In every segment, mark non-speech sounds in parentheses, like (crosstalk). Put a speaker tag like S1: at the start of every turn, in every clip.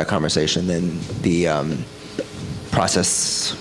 S1: that conversation, then the um, process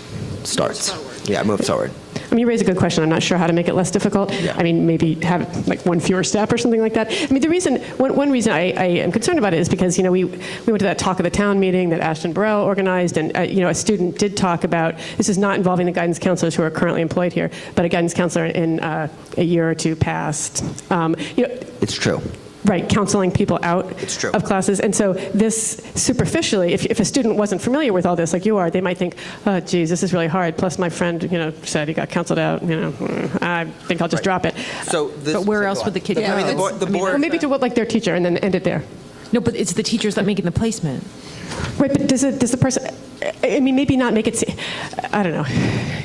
S1: starts. Yeah, move forward.
S2: I mean, you raise a good question. I'm not sure how to make it less difficult.
S1: Yeah.
S2: I mean, maybe have like one fewer step or something like that. I mean, the reason, one, one reason I, I am concerned about it is because, you know, we, we went to that talk of the town meeting that Ashton Burrell organized, and, uh, you know, a student did talk about, this is not involving the guidance counselors who are currently employed here, but a guidance counselor in uh, a year or two past. Um, you know,
S1: It's true.
S2: Right, counseling people out
S1: It's true.
S2: of classes. And so this superficially, if, if a student wasn't familiar with all this like you are, they might think, oh, geez, this is really hard. Plus my friend, you know, said he got counseled out, you know, mm, I think I'll just drop it.
S1: So this.
S3: But where else would the kid
S1: I mean,
S3: go?
S1: The board, the
S3: I mean,
S2: Or
S1: board-
S2: maybe to what, like their teacher and then end it there.
S3: No, but it's the teachers that making the placement.
S2: Right, but does it, does the person, I I mean, maybe not make it, se- I don't know.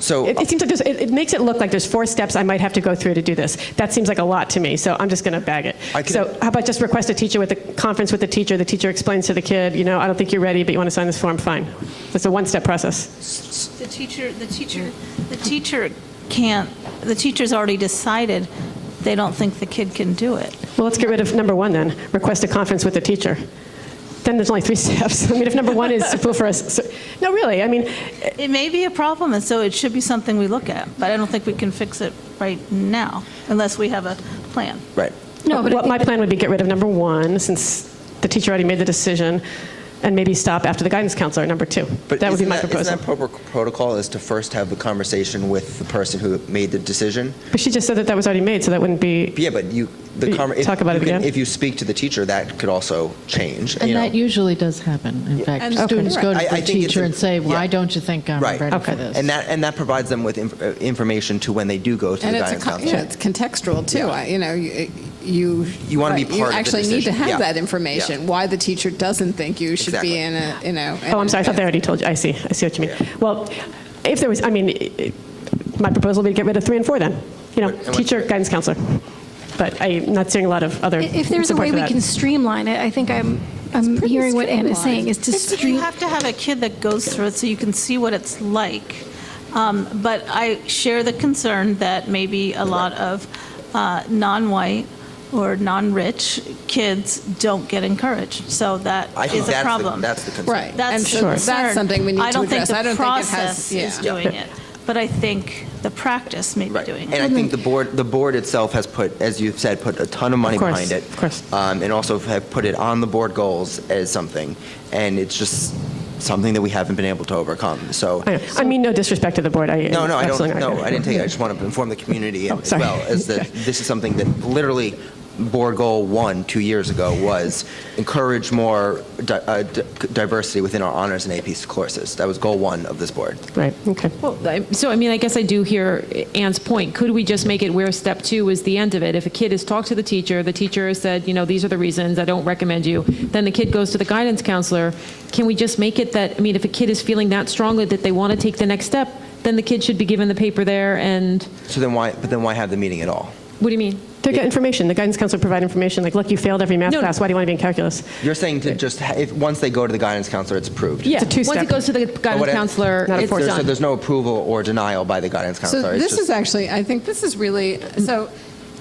S1: so uh,
S2: It, it seems like there's, it, it makes it look like there's four steps I might have to go through to do this. That seems like a lot to me, so I'm just going to bag it.
S1: I can-
S2: so how about just request a teacher with a conference with the teacher. The teacher explains to the kid, you know, I don't think you're ready, but you want to sign this form. Fine. It's a one-step process.
S4: The teacher, the teacher, the teacher can't, the teacher's already decided they don't think the kid can do it.
S2: Well, let's get rid of number one then. Request a conference with the teacher. Then there's only three (laughs) steps. I mean, if number one
S1: (laughs)
S2: is superfluous, so, no, really. I mean,
S4: It may be a problem, and so it should be something we look at, but I don't think we can fix it right now unless we have a plan.
S1: right.
S3: No, but I
S2: what
S3: think
S2: my plan would be get rid of number one since the teacher already made the decision, and maybe stop after the guidance counselor at number two.
S1: But
S2: that would be
S1: isn't
S2: my
S1: isn't
S2: proposal.
S1: that proper protocol is to first have a conversation with the person who made the decision?
S2: But she just said that that was already made, so that wouldn't be.
S1: Yeah, but you the
S2: You
S1: conver-
S2: talk about
S1: you
S2: it
S1: can-
S2: again?
S1: If you speak to the teacher, that could also change.
S5: And
S1: you know.
S5: that usually does happen. In fact, students go to
S1: I- I
S5: the
S1: think it's
S5: teacher
S1: a-
S5: and say, why
S1: yeah.
S5: don't you think I'm
S1: Right.
S5: ready
S2: Okay.
S5: for this?
S1: and that and that provides them with inf- uh, information to when they do go to
S6: And
S1: the
S6: it's, a
S1: guidance
S6: con-
S1: counselor.
S6: yeah, it's contextual, too. I- You know, you- you.
S1: You wanna be
S6: right,
S1: part of
S6: You
S1: the
S6: actually need to
S1: decision.
S6: have
S1: Yeah.
S6: that information,
S1: Yeah.
S6: why the teacher doesn't think you should
S1: Exactly.
S6: be in a, you know. in
S2: Oh, I'm
S6: an
S2: sorry, I thought they
S6: advanced-
S2: already told you. I see, I see what you mean.
S1: Yeah.
S2: Well, if there was, I mean, i- i- my proposal would be to get rid of three and four then, you know,
S1: Right, and what-
S2: teacher, guidance counselor. But I'm not seeing a lot of other
S7: If there's a
S2: support
S7: way
S2: for
S7: we
S2: that.
S7: can streamline it, I think I'm, I'm hearing what Anne is saying, is to
S4: You
S7: stream,
S4: have to have a kid that goes through it so you can see what it's like. Um, But I share the concern that maybe a lot of uh, non-white or non-rich kids don't get encouraged. So that
S1: I think
S4: is a
S1: that's
S4: problem.
S1: The, that's the concern.
S6: Right.
S4: That's
S6: And
S4: the
S6: so
S4: concern.
S6: That's something we need to address. I don't think it has,
S4: I don't think the process is
S6: yeah.
S4: doing it, but I think the practice may be
S1: Right.
S4: doing
S1: And
S4: it.
S1: I
S6: Mm-hmm.
S1: think the board, the board itself has put, as you've said, put a ton of money
S2: Of course,
S1: behind it.
S2: of course.
S1: Um, and also have put it on the board goals as something. And it's just something that we haven't been able to overcome. So,
S2: I know. I mean, no disrespect to the board, I.
S1: no, no, I
S2: Oh, absolutely
S1: don't,
S2: not
S1: no,
S2: gonna-
S1: I didn't take it. I just want to inform the community
S2: Oh,
S1: as
S2: sorry.
S1: well, as
S2: (laughs)
S1: that this is something that literally board goal one, two years ago, was encourage more di- uh, di- diversity within our honors and AP courses. That was goal one of this board.
S2: Right, okay.
S3: Well, I- so I mean, I guess I do hear Anne's point. Could we just make it where step two is the end of it? If a kid has talked to the teacher, the teacher has said, you know, these are the reasons, I don't recommend you, then the kid goes to the guidance counselor. Can we just make it that, I mean, if a kid is feeling that strongly that they want to take the next step, then the kid should be given the paper there and,
S1: So then why, but then why have the meeting at all?
S3: what do you mean?
S2: To get information, the guidance counselor provide information, like, look, you failed every math
S3: No, no.
S2: class, why do you want to be in calculus?
S1: You're saying to just, ha- if, once they go to the guidance counselor, it's approved?
S3: Yeah, Once
S2: two-step.
S3: it goes to the
S1: But
S3: guidance
S1: what-
S3: counselor,
S2: Not a
S3: it's
S1: If there's, so
S3: done.
S1: there's no approval or denial by the guidance
S6: So
S1: counselor. it's
S6: this
S1: Oh, just-
S6: is actually, I think this is really, so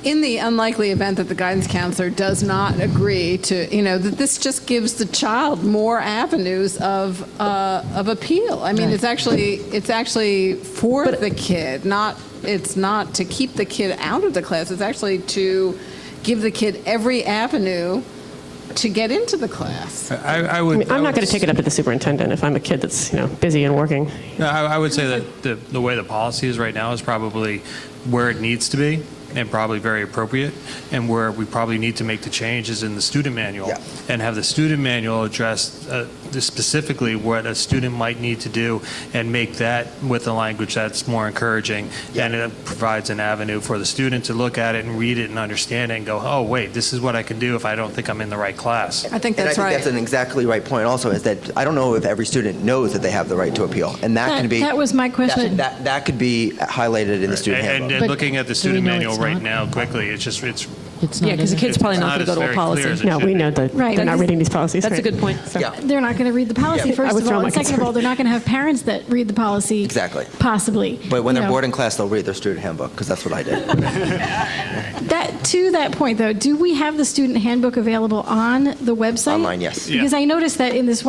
S6: in the unlikely event that the guidance counselor does not agree to, you know, that this just gives the child more avenues of, uh, of appeal. I mean, it's actually, it's actually for the kid, not, it's not to keep the kid out of the class. It's actually to give the kid every avenue to get into the class.
S8: I, I
S2: I
S8: would.
S2: mean, I'm not going to take it up to the superintendent if I'm a kid that's, you know, busy and working.
S8: No, I, I would say that the, the way the policy is right now is probably where it needs to be and probably very appropriate. And where we probably need to make the change is in the student manual
S1: Yeah.
S8: and have the student manual address uh, the- specifically what a student might need to do and make that with a language that's more encouraging. And it provides an avenue for the student to look at it and read it and understand it and go, oh, wait, this is what I can do if I don't think I'm in the right class.
S6: I think
S1: And I
S6: that's
S1: think
S6: right.
S1: that's an exactly right point also, is that I don't know if every student knows that they have the right to appeal. And that
S7: That-
S1: can be.
S7: that was my question.
S1: That, that could be highlighted in the student
S8: And,
S1: handbook.
S8: and
S5: But
S8: looking at the
S5: do we
S8: student
S5: know
S8: manual
S5: it's
S8: right
S5: not?
S8: now quickly, it's just, it's
S5: It's not
S3: Yeah, because the
S5: in it.
S3: kid's probably not going
S8: It's
S3: to
S8: not
S3: go to a
S8: as very clear as
S3: policy.
S8: it
S2: No, we
S8: should
S2: know
S8: be.
S2: that
S7: Right.
S2: they're not reading these policies.
S3: That's a
S2: right.
S3: good point.
S1: Yeah.
S7: They're not going to read the policy,
S2: I
S7: first
S2: would
S7: of
S2: throw
S7: all.
S2: my
S7: And second of
S2: concern.
S7: all, they're not going to have parents that read the policy.
S1: Exactly.
S7: Possibly.
S1: But when
S7: you
S1: they're
S7: know.
S1: bored in class, they'll read their student handbook, because that's what I did.
S7: That, to that point, though, do we have the student handbook available on the website?
S1: Online, yes.
S7: Because I noticed that in this